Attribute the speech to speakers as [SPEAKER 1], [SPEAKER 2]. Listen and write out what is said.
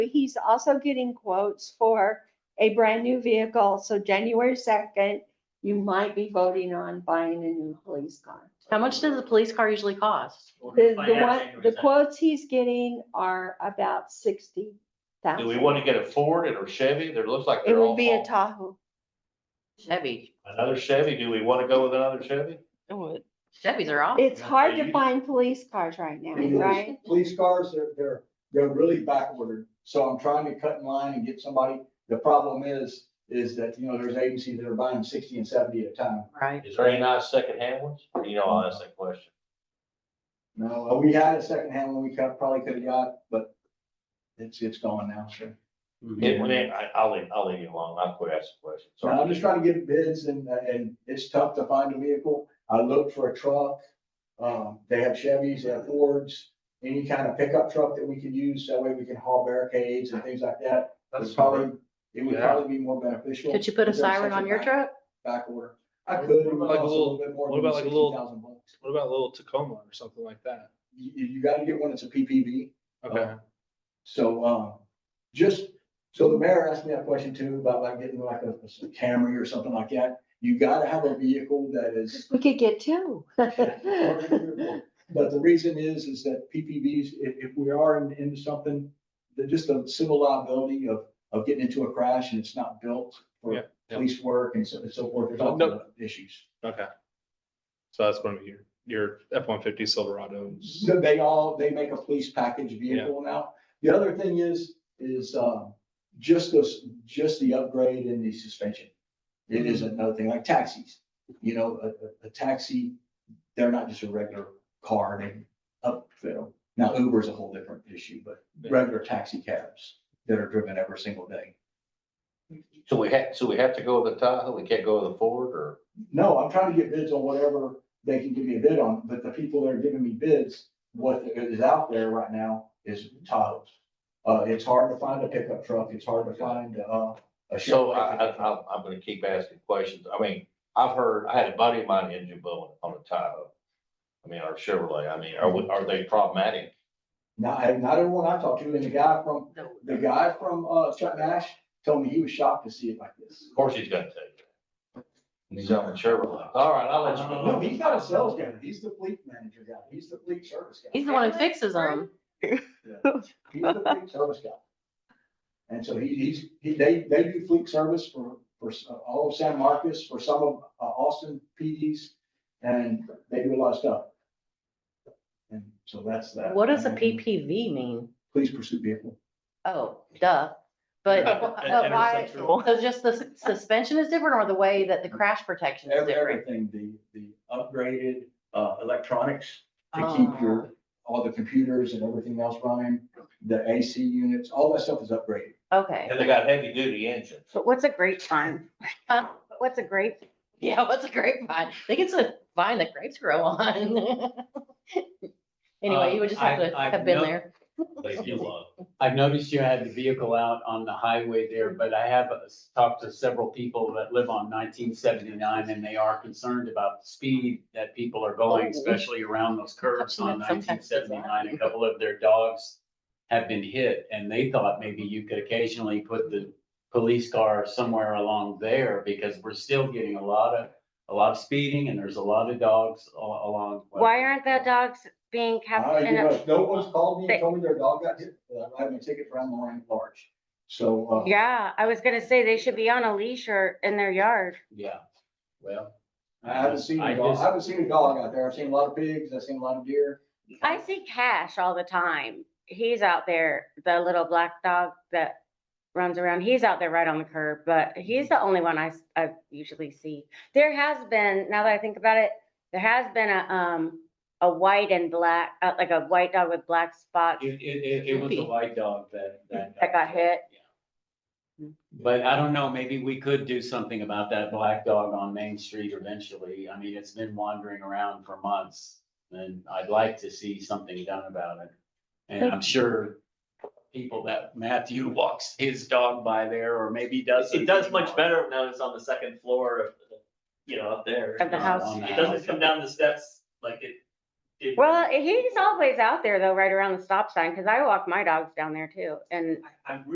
[SPEAKER 1] He's also getting quotes for a brand new vehicle, so January second, you might be voting on buying a new police car.
[SPEAKER 2] How much does a police car usually cost?
[SPEAKER 1] The, the one, the quotes he's getting are about sixty
[SPEAKER 3] Do we
[SPEAKER 1] thousand.
[SPEAKER 3] want to get a Ford and a Chevy? There looks like
[SPEAKER 1] It
[SPEAKER 3] they're
[SPEAKER 1] would
[SPEAKER 3] all,
[SPEAKER 1] be a
[SPEAKER 3] fall-
[SPEAKER 1] Tahoe.
[SPEAKER 2] Chevy,
[SPEAKER 3] another Chevy. Do we want to go with another Chevy?
[SPEAKER 2] Chevys are awesome.
[SPEAKER 1] It's hard to find police cars right now,
[SPEAKER 4] It is.
[SPEAKER 1] right?
[SPEAKER 4] Police cars, they're, they're, they're really backordered, so I'm trying to cut in line and get somebody. The problem is, is that, you know, there's agencies that are buying sixty and seventy at a time.
[SPEAKER 2] Right.
[SPEAKER 3] Is there any nice secondhand ones? Or, You know, I'll ask that question.
[SPEAKER 4] No, Uh, we had a secondhand one we could, probably could have got, but it's, it's gone now, sure. Mm-hmm.
[SPEAKER 3] It- when it- I, I'll leave, I'll leave you alone. I'll quit asking questions.
[SPEAKER 4] So I'm just trying to get bids and, and it's tough to find a vehicle. I looked for a truck. Um, they have Chevys, they have Fords, any kind of pickup truck that we could use, that way we can haul barricades and things like that. It's probably, it would
[SPEAKER 5] Yeah.
[SPEAKER 4] probably be more beneficial.
[SPEAKER 2] Could you put a
[SPEAKER 4] Is there
[SPEAKER 2] siren
[SPEAKER 4] such
[SPEAKER 2] on your
[SPEAKER 4] back-
[SPEAKER 2] truck?
[SPEAKER 4] Back order. I could. it would
[SPEAKER 5] Like a
[SPEAKER 4] cost
[SPEAKER 5] little-
[SPEAKER 4] little bit more
[SPEAKER 5] what
[SPEAKER 4] than
[SPEAKER 5] about like a little-
[SPEAKER 4] 60,000 bucks.
[SPEAKER 5] What about a little Tacoma or something like that?
[SPEAKER 4] You, you gotta get one that's a PPV.
[SPEAKER 5] Okay.
[SPEAKER 4] So, um, just, so the mayor asked me that question too, about like getting like a a Camry or something like that. You gotta have a vehicle that is
[SPEAKER 1] We could get two.
[SPEAKER 4] But the reason is, is that PPVs, if, if we are in- into something, the just the civil liability of, of getting into a crash and it's not built
[SPEAKER 5] Yeah,
[SPEAKER 4] for
[SPEAKER 5] yeah.
[SPEAKER 4] police work and so, and so forth, there's all
[SPEAKER 5] No.
[SPEAKER 4] kinds of issues.
[SPEAKER 5] Okay. So that's one of your, your F one fifty Silverados.
[SPEAKER 4] So they all, they make a police package vehicle now. The other thing is, is, um, just this, just the upgrade in the suspension. It is another thing, like taxis, you know, a, a, a taxi, they're not just a regular car, they upfit them. Now Uber is a whole different issue, but regular taxi cabs that are driven every single day.
[SPEAKER 3] So we have, so we have to go with the Tahoe? We can't go with the Ford or?
[SPEAKER 4] No, I'm trying to get bids on whatever they can give me a bid on, but the people that are giving me bids, what is out there right now is Tahoe's. Uh, it's hard to find a pickup truck, it's hard to find, uh, a.
[SPEAKER 3] So
[SPEAKER 4] Chevrolet
[SPEAKER 3] I, I,
[SPEAKER 4] pickup truck.
[SPEAKER 3] I'm- I'm gonna keep asking questions. I mean, I've heard, I had a buddy of mine in Jumbo on a Tahoe. I mean, or Chevrolet. I mean, are, we- are they problematic?
[SPEAKER 4] Not, not everyone I talked to, and the guy from,
[SPEAKER 2] No.
[SPEAKER 4] the guy from, uh, Chuck Nash told me he was shocked to see it like this.
[SPEAKER 3] Of course he's gonna take it. He's on a Chevrolet. All right, I'll let you
[SPEAKER 4] No,
[SPEAKER 3] go.
[SPEAKER 4] he's not a sales guy, he's the fleet manager guy, he's the fleet service guy.
[SPEAKER 2] He's the one who fixes them.
[SPEAKER 4] He's the fleet service guy. And so he, he's, he, they, they do fleet service for, for s- uh, all of San Marcos, for some of uh, Austin PDs, and they do a lot of stuff. And so that's that.
[SPEAKER 2] What does a
[SPEAKER 4] And
[SPEAKER 2] PPV mean?
[SPEAKER 4] Police pursuit vehicle.
[SPEAKER 2] Oh, duh. But
[SPEAKER 5] Yeah,
[SPEAKER 2] but
[SPEAKER 5] and- and
[SPEAKER 2] Uh, why,
[SPEAKER 5] it's
[SPEAKER 2] so
[SPEAKER 5] central.
[SPEAKER 2] just the s- suspension is different or the way that the crash protection is
[SPEAKER 4] Every-
[SPEAKER 2] different?
[SPEAKER 4] Everything, the, the upgraded, uh, electronics to
[SPEAKER 2] Ah.
[SPEAKER 4] keep your, all the computers and everything else running, the AC units, all that stuff is upgraded.
[SPEAKER 2] Okay.
[SPEAKER 3] And they got heavy duty engines.
[SPEAKER 6] But what's a grapevine?
[SPEAKER 2] Huh?
[SPEAKER 6] But What's a grape?
[SPEAKER 2] Yeah, what's a grapevine? They get to vine that grapes grow on. Anyway, you would just have
[SPEAKER 7] Um,
[SPEAKER 2] to
[SPEAKER 7] I- I've
[SPEAKER 2] have been
[SPEAKER 7] no-
[SPEAKER 2] there.
[SPEAKER 3] They do love.
[SPEAKER 7] I've noticed you had the vehicle out on the highway there, but I have uh, talked to several people that live on nineteen seventy-nine and they are concerned about the speed that people are going,
[SPEAKER 2] Oh.
[SPEAKER 7] especially around those curves on
[SPEAKER 2] Sometimes it's
[SPEAKER 7] nineteen seventy-nine. A couple of their dogs have been hit and they thought maybe you could occasionally put the police car somewhere along there because we're still getting a lot of, a lot of speeding and there's a lot of dogs a- along.
[SPEAKER 6] Why aren't Ah, the dogs being kept
[SPEAKER 4] I
[SPEAKER 6] in
[SPEAKER 4] give
[SPEAKER 6] a,
[SPEAKER 4] up. No one's called me and told me their dog got hit, uh, I have a ticket for online large. So, uh,
[SPEAKER 6] yeah, I was gonna say they should be on a leash or in their yard.
[SPEAKER 7] Yeah, well.
[SPEAKER 4] I haven't seen a dog, I
[SPEAKER 7] just-
[SPEAKER 4] haven't seen a dog out there. I've seen a lot of pigs, I've seen a lot of deer.
[SPEAKER 6] I see Cash all the time. He's out there, the little black dog that runs around. He's out there right on the curb, but he's the only one I, s- I usually see. There has been, now that I think about it, there has been a, um, a white and black, uh, like a white dog with black spots
[SPEAKER 7] It, it, it, it was a
[SPEAKER 2] Goofy.
[SPEAKER 7] white dog that, that.
[SPEAKER 6] that got hit.
[SPEAKER 7] But I don't know, maybe we could do something about that black dog on Main Street eventually. I mean, it's been wandering around for months. And I'd like to see something done about it. And I'm sure people that Matthew walks his dog by there or maybe doesn't.
[SPEAKER 8] It does much better now it's on the second floor of, the- you know, up there.
[SPEAKER 6] Of the
[SPEAKER 8] It's-
[SPEAKER 6] house.
[SPEAKER 8] It doesn't come down the steps like it it-
[SPEAKER 6] Well, he's always out there though, right around the stop sign, because I walk my dogs down there too, and
[SPEAKER 8] I'm